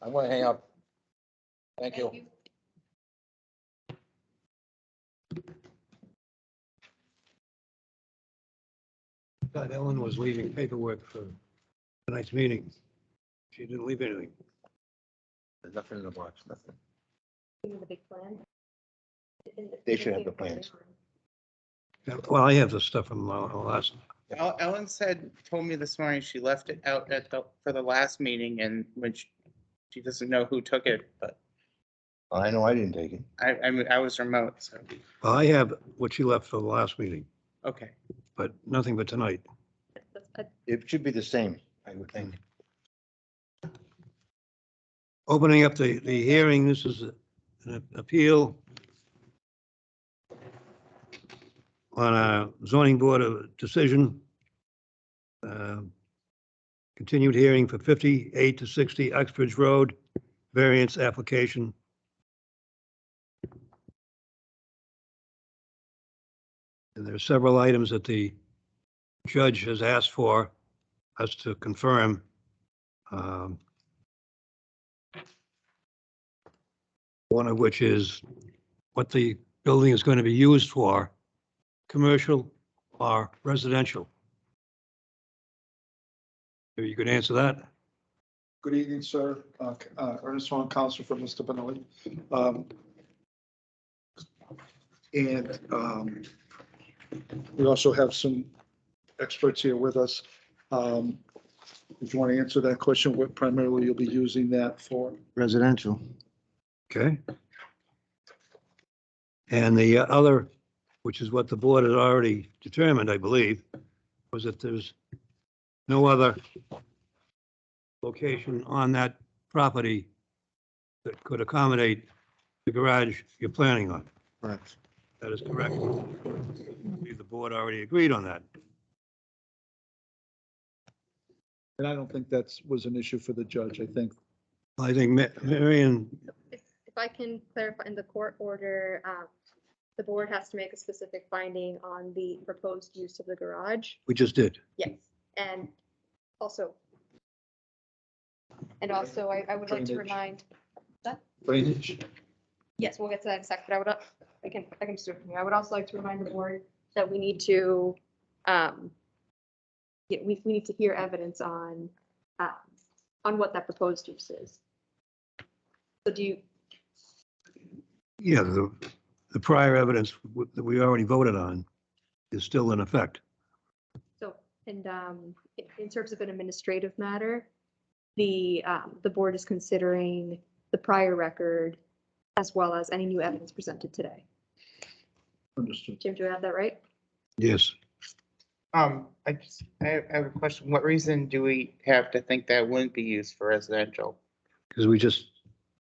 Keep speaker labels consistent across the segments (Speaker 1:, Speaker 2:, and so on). Speaker 1: I'm gonna hang up. Thank you.
Speaker 2: Thought Ellen was leaving paperwork for tonight's meeting. She didn't leave anything.
Speaker 1: There's nothing in the box, nothing.
Speaker 3: The big plan.
Speaker 1: They should have the plans.
Speaker 2: Yeah, Well, I have the stuff from la- last,
Speaker 4: El- Ellen said, told me this morning, she left it out at the, for the last meeting and when she, she doesn't know who took it, but
Speaker 1: I know I didn't take it.
Speaker 4: I, I mean, I was remote, so,
Speaker 2: well, I have what she left for the last meeting,
Speaker 4: okay.
Speaker 2: but nothing but tonight.
Speaker 1: It should be the same, I would think.
Speaker 2: Opening up the, the hearing, this is an appeal on a zoning board of decision. Uh, Continued hearing for 58 to 60 Uxbridge Road, variance application. And there are several items that the judge has asked for us to confirm. Um, one of which is what the building is going to be used for, commercial or residential. If you could answer that,
Speaker 5: Good evening, sir. Uh, uh, Ernest Swan, counsel for Mr. Benelli. Um, And um, we also have some experts here with us. Um, If you want to answer that question, what primarily you'll be using that for?
Speaker 6: residential.
Speaker 2: okay? And the other, which is what the board had already determined, I believe, was that there's no other location on that property that could accommodate the garage you're planning on.
Speaker 6: Correct.
Speaker 2: That is correct. I believe The board already agreed on that.
Speaker 5: And I don't think that's, was an issue for the judge. I think
Speaker 2: I think Ma- Marion,
Speaker 3: If if I can clarify, in the court order, um, the board has to make a specific finding on the proposed use of the garage.
Speaker 2: we just did.
Speaker 3: Yes, and also. And also, I, I would like to
Speaker 5: Drainage.
Speaker 3: remind,
Speaker 5: drainage,
Speaker 3: yes, we'll get to that in a sec, but I would, uh, I can, I can just do it from here. I would also like to remind the board that we need to, um, yeah, we, we need to hear evidence on, uh, on what that proposed use is. So do you,
Speaker 2: Yeah, the, the prior evidence w- that we already voted on is still in effect.
Speaker 3: So, and um, in- in terms of an administrative matter, the, um, the board is considering the prior record as well as any new evidence presented today.
Speaker 5: understood.
Speaker 3: Jim, do I have that right?
Speaker 2: Yes.
Speaker 4: Um, I just, I have, I have a question. What reason do we have to think that wouldn't be used for residential?
Speaker 2: Because we just,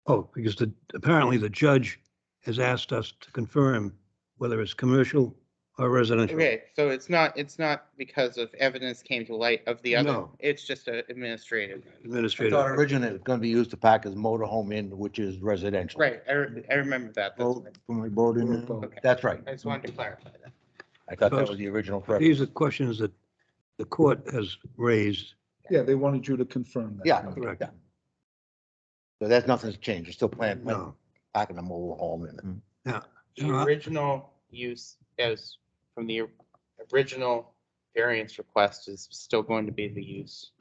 Speaker 2: oh, because the, apparently the judge has asked us to confirm whether it's commercial or residential.
Speaker 4: Okay, so it's not, it's not because of evidence came to light of the other,
Speaker 2: No.
Speaker 4: it's just a administrative.
Speaker 1: I thought
Speaker 2: Administrative.
Speaker 1: originally it was gonna be used to pack his motorhome in, which is residential.
Speaker 4: Right, I, re- I remember that. that's
Speaker 1: Road-
Speaker 4: what
Speaker 1: From the road in there.
Speaker 4: Okay.
Speaker 1: That's right.
Speaker 4: I I just wanted to clarify that.
Speaker 1: I thought that was the original premise.
Speaker 2: These are questions that the court has raised.
Speaker 5: Yeah, they wanted you to confirm that.
Speaker 1: Yeah.
Speaker 2: Correct.
Speaker 1: yeah. So that's nothing's changed. It's still planned,
Speaker 2: No.
Speaker 1: packing the motorhome in. it.
Speaker 4: the
Speaker 2: Uh,
Speaker 4: original use as from the original variance request is still going to be the use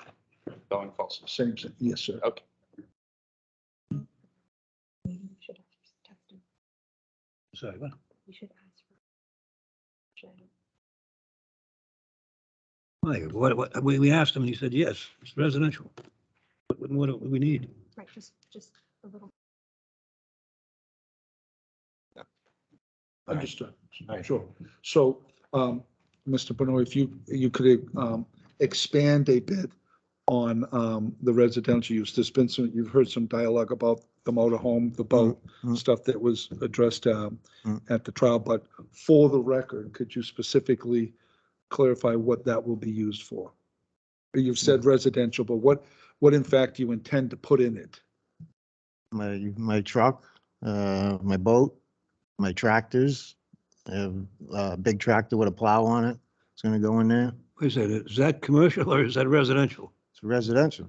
Speaker 4: going forward.
Speaker 5: Same, thing. yes, sir.
Speaker 2: Sorry, what? Why? What, what, we, we asked him and he said, yes, it's residential. What, what- what do we need?
Speaker 3: Right, just, just a little.
Speaker 1: Right.
Speaker 5: Understood,
Speaker 1: Right.
Speaker 5: sure. So, um, Mr. Benoit, if you, you could, um, expand a bit on, um, the residential use. There's been some, you've heard some dialogue about the motorhome, the boat,
Speaker 1: Mm-hmm.
Speaker 6: mm.
Speaker 5: stuff that was addressed, um,
Speaker 6: Mm.
Speaker 5: at the trial, but for the record, could you specifically clarify what that will be used for? You've said
Speaker 1: Mm-hmm.
Speaker 5: residential, but what, what in fact you intend to put in it?
Speaker 6: My, my truck, uh, my boat, my tractors. I have a big tractor with a plow on it. It's gonna go in there.
Speaker 2: Wait a second, is that commercial or is that residential?
Speaker 6: It's residential.